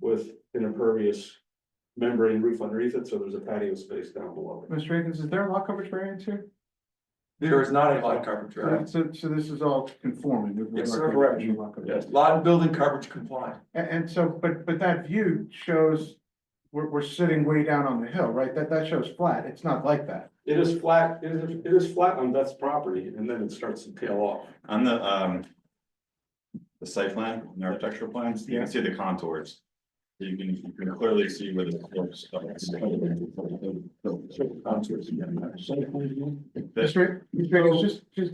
with an impervious membrane roof underneath it, so there's a patio space down below. it. Mr. Akins, is there a lot coverage variance here? There is not a lot coverage, right? So, so this is all conforming. with Yes, regard to correct. any lot coverage. Yes, Lot and building coverage compliant. And, and so, but, but that view shows, we're, we're sitting way down on the hill, right? That, that shows flat. It's not like that. it is flat, it is, it is flat on Beth's property, and then it starts to tail off. On the, um. The site plan, and the architectural plans, you can see the contours. You can, you can clearly see where the. slopes are. This- Mr. Mr. Akins, just, just,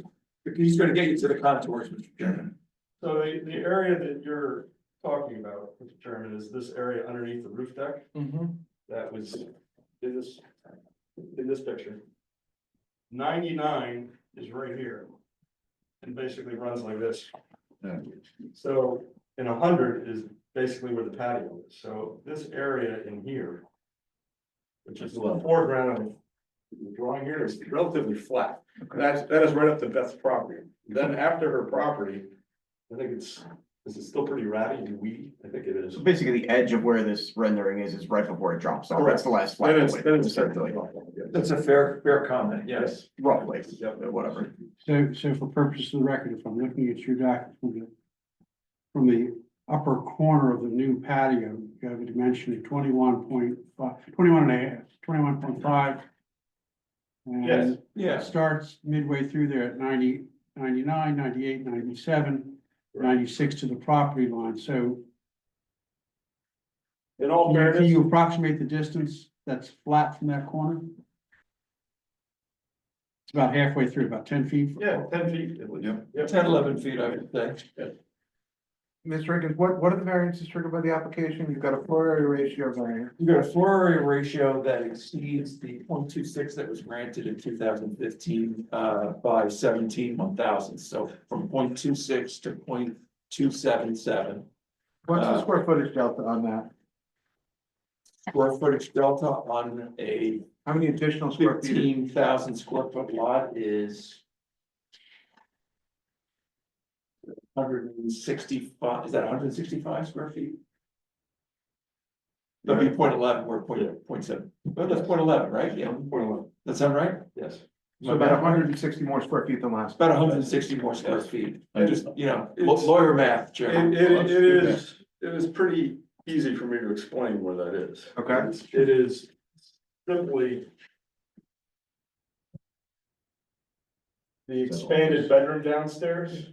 He's gonna get you to the contours, Mr. Chairman. So the, the area that you're talking about, Mr. Chairman, is this area underneath the roof deck Mm-hmm. that was in this, in this picture. Ninety-nine is right here. And basically runs like this. Yeah. So, and hundred is basically where the patio is, so this area in here. Which is the foreground of the drawing here is relatively flat, that's, that is right up to Beth's property, then after her property. I think it's, is it still pretty ratty and weedy, I think it is. So basically, the edge of where this rendering is, is right before it drops off, that's the last flag. Then it's, then it's. Essentially, That's a fair, fair comment, yes. Yes. Roughly, whatever. So, so for purposes of the record, if I'm looking at your docket from the, from the upper corner of the new patio, you have a dimension of twenty-one point five, twenty-one and a half, twenty-one point five. Yes. And it Yes, starts midway through there at 90, 99, 98, 97, 96 to the property line, so In all can fairness, you approximate the distance that's flat from that corner? It's about halfway through, about ten feet. yeah, ten feet at least. Yep. Yeah. 10, 11 feet, I would think. Mr. Akins, what, what are the variances triggered by the application? You've got a floor area ratio variance. You got a floor area ratio that exceeds the 0.26 that was granted in two thousand fifteen uh by seventeen one thousand, so from 0.26 to 0.277. What's the Uh, square footage delta on that? Square footage delta on a How many additional square feet? fifteen thousand square foot lot is. Hundred and sixty-five, is that hundred and sixty-five square feet? That'd be point eleven, or point, point seven, but that's point eleven, right? Yeah, Point one, that sound right? yes. So about hundred and sixty more square feet than last. About hundred and sixty more square feet, I just, you know, law- It's- lawyer math, Chairman. It, it, it is, it is pretty easy for me to explain where that is. Okay. It's- It is simply. The expanded bedroom downstairs,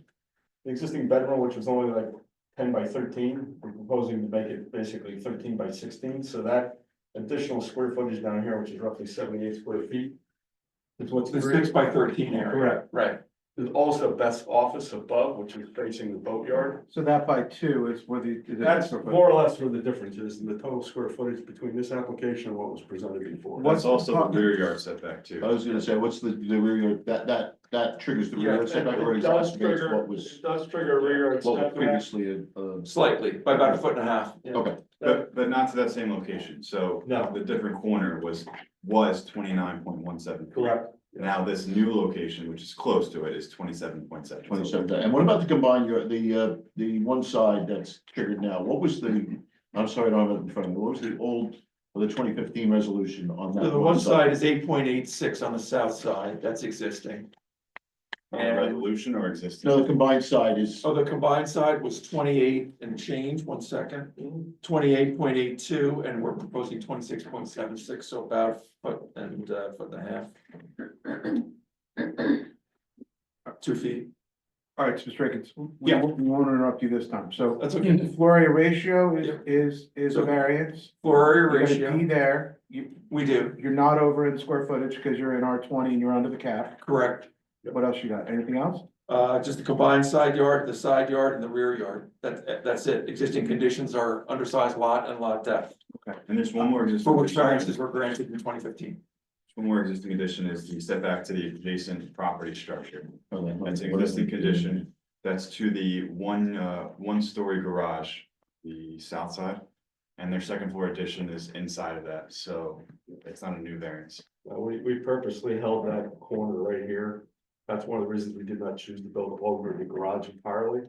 the existing bedroom, which was only like ten by thirteen, we're proposing to make it basically thirteen by sixteen, so that. Additional square footage down here, which is roughly seventy-eight square feet. Is what's. The six by thirteen area, Correct, right, there's also Beth's office above, which is facing the boatyard. So that by two is where the. That's more or less where the difference is in the total square footage between this application and what was presented before. That's also the rear yard setback too. I was gonna say, what's the, the rear, yard- that, that, that triggers the rear Yeah, yard setback, or it is does that based trigger, what it was, does trigger rear yard what was setback. previously, uh, slightly, by about a foot and a half. okay. But, but not to that same location, so. No. The different corner was, was twenty-nine point one seven. Correct. Now this new location, which is close to it, is twenty-seven point seven. Twenty-seven, and what about the combined, yard- the, uh, the one side that's triggered now, what was the, I'm sorry, I don't have it in front of me, what was the old, or the twenty fifteen resolution on So that? the one side is eight point eight six on the south side, that's existing. And, Resolution or existing? No, the combined side is, oh, the combined side was twenty-eight and change, one second, twenty-eight point eight two, and we're proposing twenty-six point seven six, so about foot and, uh, foot and a half. Two feet, All right, so Mr. Akins, we Yeah. won't, we won't interrupt you this time, so. that's okay, Floor area ratio is, Yeah. is, is a So- variance. floor area You're gonna ratio, be there, you, we do, you're not over in square footage because you're in R twenty and you're under the cap. correct. What else you got? Anything else? Uh, just the combined side yard, the side yard and the rear yard. That, that's it. Existing conditions are undersized lot and lot depth. And there's one more. existing For which condition. variances were granted in twenty fifteen. One more existing condition is the setback to the adjacent property structure. That's that's an existing condition. That's to the one, uh, one-story garage, the south side. And their second floor addition is inside of that, so it's not a new variance. Uh, we, we purposely held that corner right here. That's one of the reasons we did not choose to build over the garage entirely.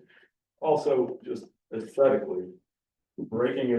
Also, just aesthetically, breaking it